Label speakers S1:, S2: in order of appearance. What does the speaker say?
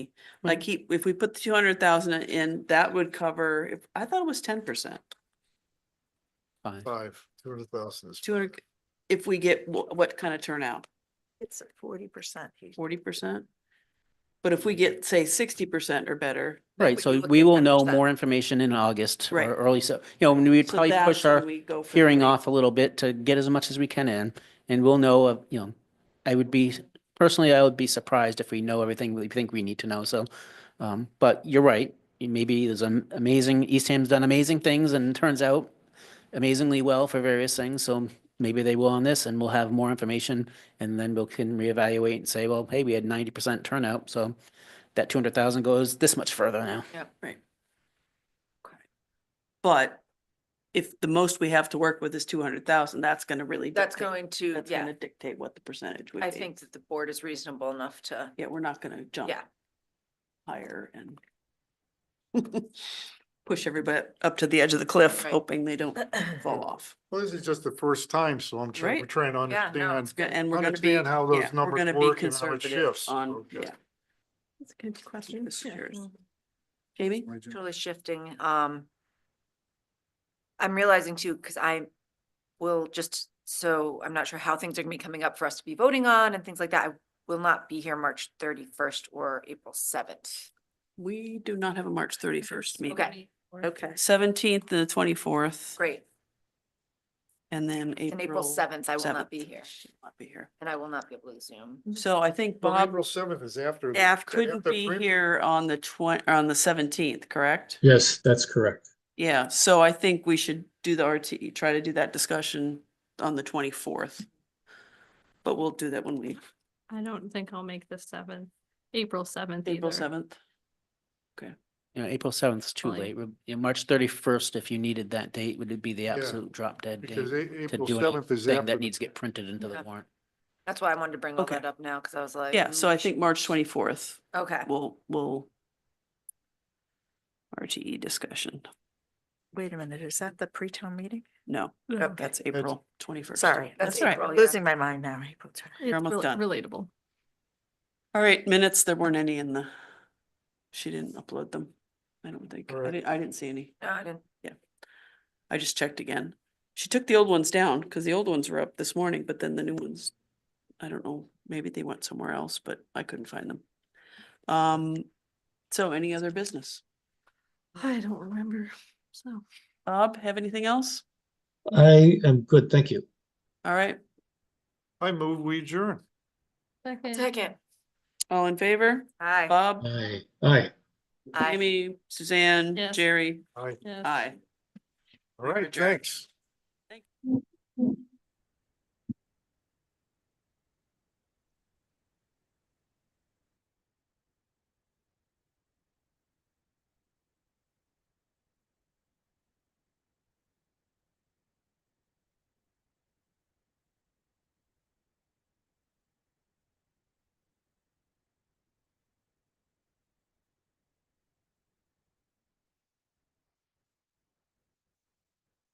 S1: Like he, if we put the two hundred thousand in, that would cover, if, I thought it was ten percent,
S2: Fine.
S3: Five, two hundred thousand is.
S1: two hundred, if we get, wh- what kind of turnout,
S4: It's forty percent.
S1: forty percent? But if we get, say, sixty percent or better,
S2: Right,
S4: we
S2: so
S4: can look
S2: we
S4: at
S2: will know
S4: 10%.
S2: more information in August
S1: Right.
S2: or early, so, you know, we'd
S1: so
S2: probably
S1: that's
S2: push
S1: when
S2: our
S1: we go. for the
S2: hearing
S1: rate.
S2: off a little bit to get as much as we can in. And we'll know, uh, you know, I would be, personally, I would be surprised if we know everything we think we need to know, so. Um, but you're right, maybe there's an amazing, Eastham's done amazing things and turns out amazingly well for various things, so maybe they will on this and we'll have more information. And then we can reevaluate and say, well, hey, we had ninety percent turnout, so that two hundred thousand goes this much further now.
S1: Yep, right. Okay. But if the most we have to work with is two hundred thousand, that's gonna really.
S4: That's
S1: dictate-
S4: going to,
S1: That's
S4: yeah,
S1: gonna dictate what the percentage would be.
S4: I think that the board is reasonable enough to,
S1: Yeah, we're not gonna jump.
S4: Yeah.
S1: Higher and push everybody up to the edge of the cliff,
S4: Right.
S1: hoping they don't fall off.
S3: Well, this is just the first time, so I'm trying, we're
S1: Right.
S3: trying to
S4: Yeah, no,
S3: understand,
S1: It's go- And we're gonna be.
S3: understand how
S1: yeah,
S3: those
S1: we're
S3: numbers
S1: gonna be
S3: work and how it
S1: conservative
S3: shifts.
S1: On,
S3: Okay.
S1: yeah. That's a good question.
S5: Hmm.
S1: Jamie?
S3: Why'd you-
S4: totally shifting, um. I'm realizing too, because I will just, so I'm not sure how things are gonna be coming up for us to be voting on and things like that. I will not be here March thirty-first or April seventh.
S1: We do not have a March thirty-first meeting.
S4: Okay,
S1: Okay, seventeenth to the twenty-fourth
S4: great.
S1: and then April.
S4: And April seventh, I will not
S1: 7th.
S4: be here
S1: She will Not be here.
S4: and I will not be able to Zoom.
S1: So I think
S3: Well,
S1: Bob
S3: April seventh is after. the-
S1: F
S3: after
S1: couldn't be
S3: print-
S1: here on the twen- on the seventeenth, correct?
S6: Yes, that's correct.
S1: Yeah, so I think we should do the RTE, try to do that discussion on the twenty-fourth. But we'll do that when we,
S5: I don't think I'll make the seventh, April seventh either.
S1: April seventh.
S2: You know, April seventh is too
S5: Fine.
S2: late. We're- you know, March thirty-first, if you needed that date, would it be the absolute drop dead date?
S3: Because A-
S2: To
S3: April
S2: do
S3: seventh is
S2: anything
S3: after.
S2: that
S3: the-
S2: needs to get printed into the
S4: Yeah.
S2: warrant.
S4: That's why I wanted to bring all
S1: Okay.
S4: that up now, because I was like.
S1: Yeah, so I
S4: "Ooh,
S1: think March twenty-fourth,
S4: Okay.
S1: we'll, we'll RTE discussion.
S7: Wait a minute, is that the pre-town meeting?
S1: No,
S7: Okay.
S1: that's April twenty-first.
S7: Sorry,
S4: That's
S7: that's all right.
S4: April,
S7: I'm
S4: yeah.
S7: Losing my mind now. April 20.
S5: It's
S1: almost
S5: rel-
S1: done.
S5: Relatable.
S1: All right, minutes, there weren't any in the, she didn't upload them, I don't think.
S3: All
S1: I
S3: right.
S1: didn't, I didn't see any.
S4: No, I didn't.
S1: I just checked again. She took the old ones down because the old ones were up this morning, but then the new ones, I don't know, maybe they went somewhere else, but I couldn't find them. Um, so any other business?
S5: I don't remember, so.
S1: Bob, have anything else?
S6: I am good, thank you.
S1: All right,
S3: I move, we adjourn.
S5: Mm-hmm.
S4: Second.
S1: all in favor?
S4: Hi.
S1: Bob,
S6: Aye, aye.
S4: Aye.
S1: Amy, Suzanne,
S5: Yes.
S1: Jerry,
S3: All right,
S5: Yes.
S1: aye.
S3: all right, thanks.